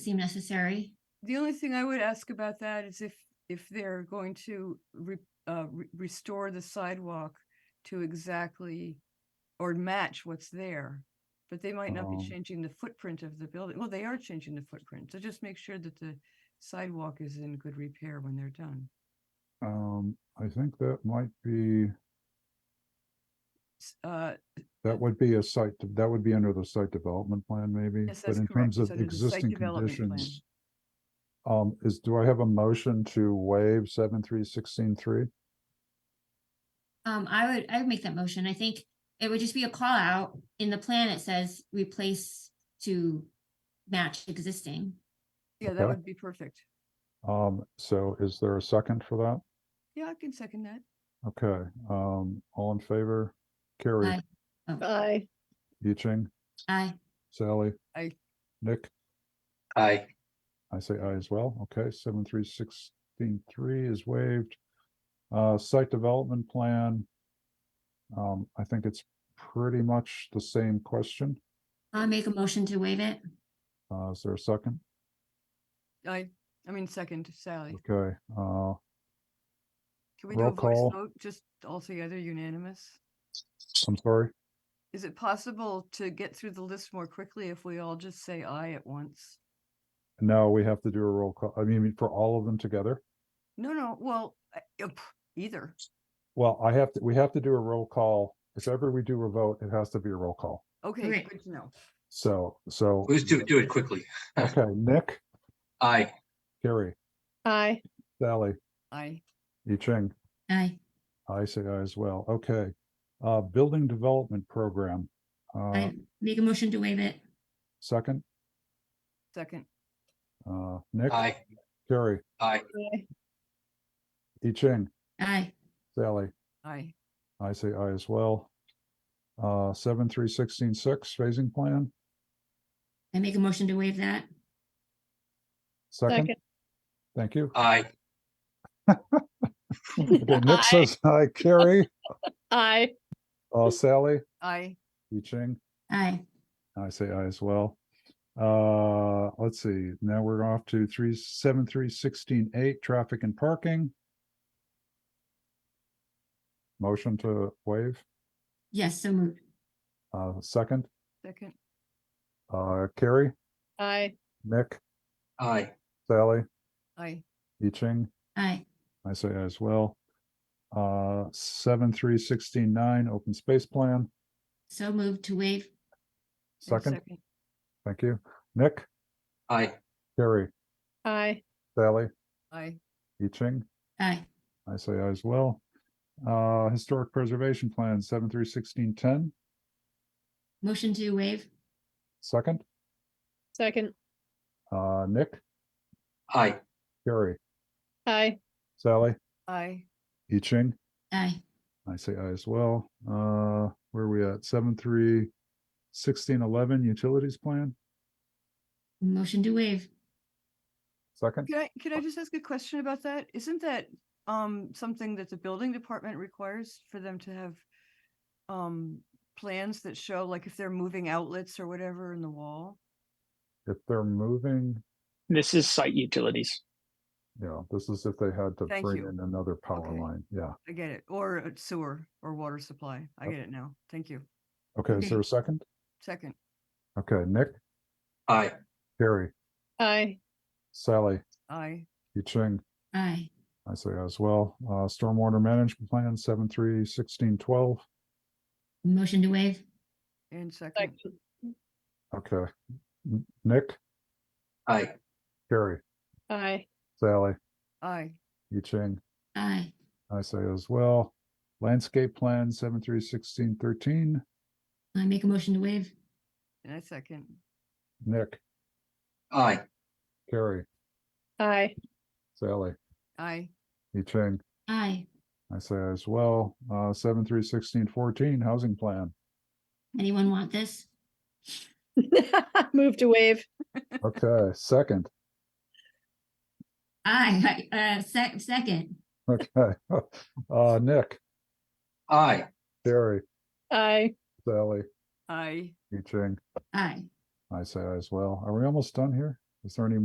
seem necessary. The only thing I would ask about that is if, if they're going to re, uh, re- restore the sidewalk to exactly or match what's there, but they might not Um, be changing the footprint of the building. Well, they are changing the footprint, so just make sure that the sidewalk is in good repair when they're done. Um, I think that might be, S- Uh, that would be a site, de- that would be under the site development plan maybe, Yes, but that's in terms correct. It's of under the site existing development plan. conditions. Um, is, do I have a motion to waive seven, three, sixteen, three? Um, I would, I would make that motion. I think it would just be a call out. In the plan, it says replace to match existing. yeah, that Okay. would be perfect. Um, so is there a second for that? Yeah, I can second that. Okay, um, all in favor? Carrie, Aye. Oh, Aye. Yiching, aye. Sally? Aye. Nick? Aye. I say aye as well. Okay, seven, three, sixteen, three is waived. Uh, site development plan. Um, I think it's pretty much the same question. I'll make a motion to waive it. Uh, is there a second? I, I mean, second, Sally. Okay, uh, Can we do a roll call. voice vote, just altogether unanimous? I'm sorry. Is it possible to get through the list more quickly if we all just say aye at once? No, we have to do a roll call. I mean, for all of them together. No, no, well, I- uh, pff, either. Well, I have to, we have to do a roll call. If ever we do a vote, it has to be a roll call. Okay, Right. good to know. So, so. Let's do, do it quickly. Okay, Nick, Aye. Carrie, Aye. Sally, Aye. Yi Ching. Aye. I say aye as well. Okay. Uh, building development program. Uh, I make a motion to waive it. second, second, uh, Nick, Aye. Carrie, Aye. Aye. I Ching, Aye. Sally, aye. I say aye as well. Uh, seven, three, sixteen, six, phasing plan. I make a motion to waive that. Second, Second. thank you. Aye. Okay, Nick Aye. says aye, Carrie, Aye. uh, Sally, Aye, I Ching, Aye. I say aye as well. Uh, let's see, now we're off to three, seven, three, sixteen, eight, traffic and parking. Motion to waive, Yes, so moved. uh, second, second, uh, Carrie, Aye. Nick, Aye. Sally, aye, I Ching, Aye. I say aye as well. Uh, seven, three, sixteen, nine, open space plan, So moved to waive. and second, thank you, Nick, Aye. Carrie, Aye. Sally, Aye, I Ching. Aye. I say aye as well. Uh, historic preservation plan, seven through sixteen ten, Motion to waive. second, Second. uh, Nick, Aye. Gary, Aye. Sally, aye, I Ching, Aye. I say aye as well. Uh, where are we at? Seven three sixteen eleven utilities plan, Motion to waive. second, Can I, can I just ask a question about that? Isn't that, um, something that the building department requires for them to have, um, plans that show like if they're moving outlets or whatever in the wall? if they're moving, This is site utilities. you know, this is if they had to Thank bring you. in another power Okay. line, yeah. I get it, or a sewer or water supply. I get it now. Thank you. Okay, is Okay. there a second? Second, Okay, Nick, Aye. Gary, Aye. Sally, aye, I Ching, Aye. I say aye as well. Uh, stormwater management plan, seven three sixteen twelve, Motion to waive. and second, Second. Okay. N- Nick, Aye. Carrie, Aye. Sally, aye, Yi Ching, Aye. I say as well. Landscape plan seven through sixteen thirteen, I make a motion to waive. and I second. Nick, Aye. Carrie, Aye. Sally, Aye, Yi Ching, Aye. I say as well. Uh, seven through sixteen fourteen, housing plan. Anyone want this? Move to waive. Okay, second, Aye. Aye. Uh, sec- second. okay. Uh, Nick, Aye. Carrie, Aye. Sally, aye. Yi Ching, Aye. I say aye as well. Are we almost done here? Is there any